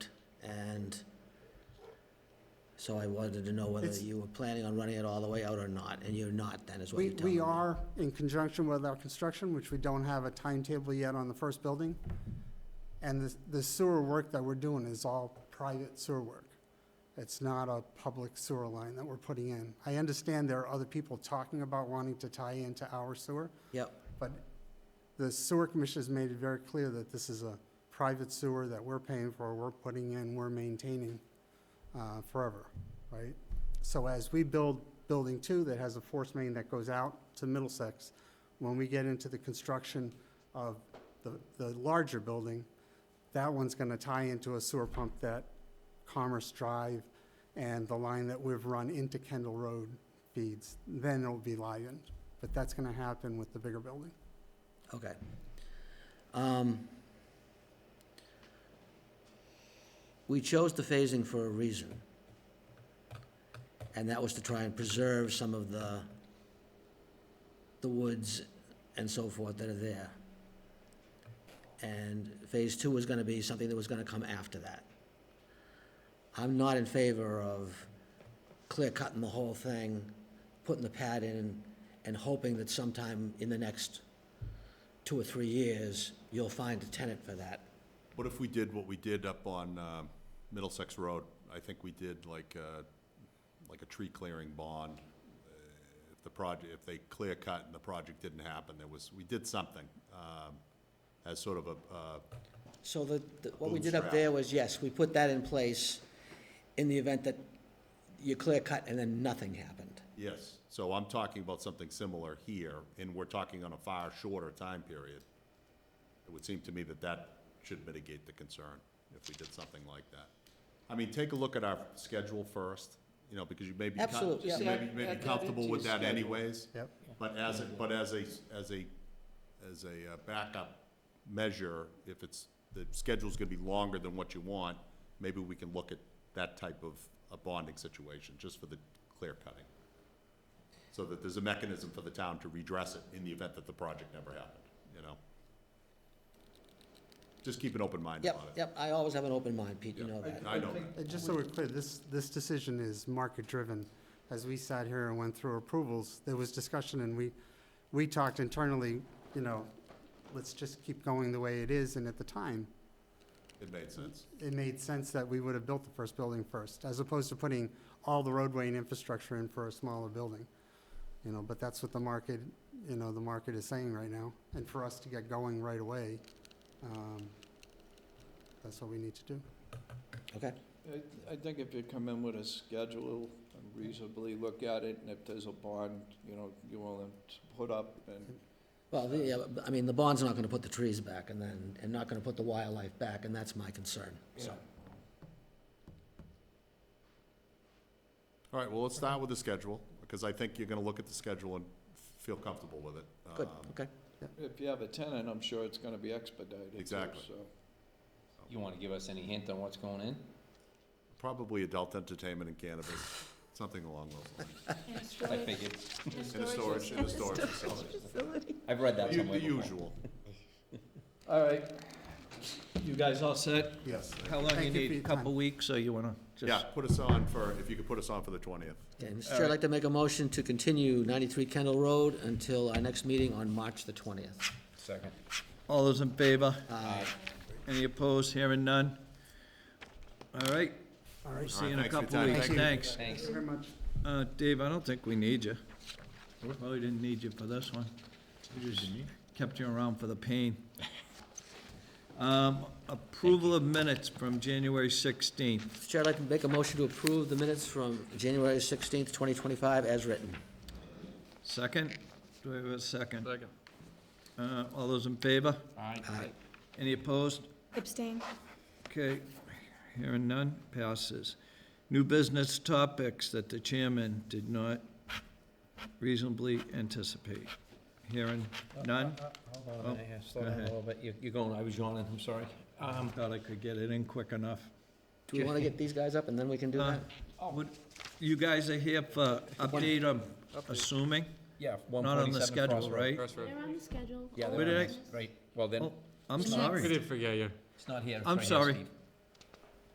So I wanted to know whether It's- you were planning on running it all the way out or not, and you're not, then, is what We, you're telling me. we are in conjunction with our construction, which we don't have a timetable yet on the first building. And the- the sewer work that we're doing is all private sewer work. It's not a public sewer line that we're putting in. I understand there are other people talking about wanting to tie into our sewer, Yep, but the sewer commission has made it very clear that this is a private sewer that we're paying for, we're putting in, we're maintaining uh, forever, right? So as we build Building Two that has a force main that goes out to Middlesex, when we get into the construction of the, the larger building, that one's gonna tie into a sewer pump that Commerce Drive and the line that we've run into Kendall Road feeds, then it'll be livened. But that's gonna happen with the bigger building. okay. Um, We chose the phasing for a reason. And that was to try and preserve some of the, the woods and so forth that are there. And phase two was gonna be something that was gonna come after that. I'm not in favor of clear cutting the whole thing, putting the pad in, and hoping that sometime in the next two or three years, you'll find a tenant for that. What if we did what we did up on um, Middlesex Road? I think we did like a, like a tree clearing bond. Uh, If the project, if they clear cut and the project didn't happen, there was, we did something um, as sort of a, uh, So the, the- what we did up there was, yes, we put that in place in the event that you clear cut and then nothing happened. yes. So I'm talking about something similar here, and we're talking on a far shorter time period. It would seem to me that that should mitigate the concern if we did something like that. I mean, take a look at our schedule first, you know, because you may be. con- Absolutely, You yeah. may be- may Add that be comfortable into with your that schedule. anyways. Yep. But as, a but as a, as a, as a uh, backup measure, if it's, the schedule's gonna be longer than what you want, maybe we can look at that type of a bonding situation, just for the clear cutting. So that there's a mechanism for the town to redress it in the event that the project never happened, you know? Just keep an open mind Yep, about it. yep, I always have an open mind, Pete, you know that. I know that. And Uh, just so we're clear, this, this decision is market-driven. As we sat here and went through approvals, there was discussion, and we, we talked internally, you know, let's just keep going the way it is, and at the time, It made sense. it made sense that we would have built the first building first, as opposed to putting all the roadway and infrastructure in for a smaller building. You know, but that's what the market, you know, the market is saying right now, and for us to get going right away, um, that's what we need to do. Okay, I, I think if you come in with a schedule and reasonably look at it, and if there's a bond, you know, you want them to put up, and well, the- yeah, but, I mean, the bond's not gonna put the trees back and then, and not gonna put the wildlife back, and that's my concern, so. All right, well, let's start with the schedule, because I think you're gonna look at the schedule and feel comfortable with it. Good, Um, okay. if you have a tenant, I'm sure it's gonna be expedited. too, Exactly. So, You want to give us any hint on what's going in? Probably adult entertainment and cannabis, something along those lines. I figured. In a storage, in a storage facility. I've read that The somewhere the before. usual. all right, you guys all set? Yes. How long Thank you you for need, a your couple time. weeks, so you wanna just? Yeah, put us on for, if you could put us on for the twentieth. Okay, Mr. Chair, I'd like to make a motion to continue ninety-three Kendall Road until our next meeting on March the twentieth. Second. All those in favor? Uh. Any opposed? Hearing none? All right. All right. See you in a Thanks for your couple time. weeks. Thank you. Thanks. Thank you very much. Uh, Dave, I don't think we need you. Probably didn't need you for this one. Kept you around for the pain. Um, Approval of minutes from January 16th. Mr. Chair, I'd like to make a motion to approve the minutes from January sixteenth, twenty twenty-five, as written. Second? Do I have a second? Second. All those in favor? Aye. Any opposed? Abstain. Okay, hearing none, passes. New business topics that the chairman did not reasonably anticipate. Hearing none, Uh, Hold on, I have to slow down a ahead. little bit. You- You're going, I was yawning, I'm sorry. Um, thought I could get it in quick enough. Do we want to get these guys up and then we can do Uh, that? Oh. would- You guys are here for update, I'm assuming? Yeah, Not one on the forty-seven schedule, right? They're on the schedule. Yeah, Where they're did on I- this, right, well then, Oh, I'm Next. sorry. did forget you. it's not here. it's I'm right here, sorry. Steve.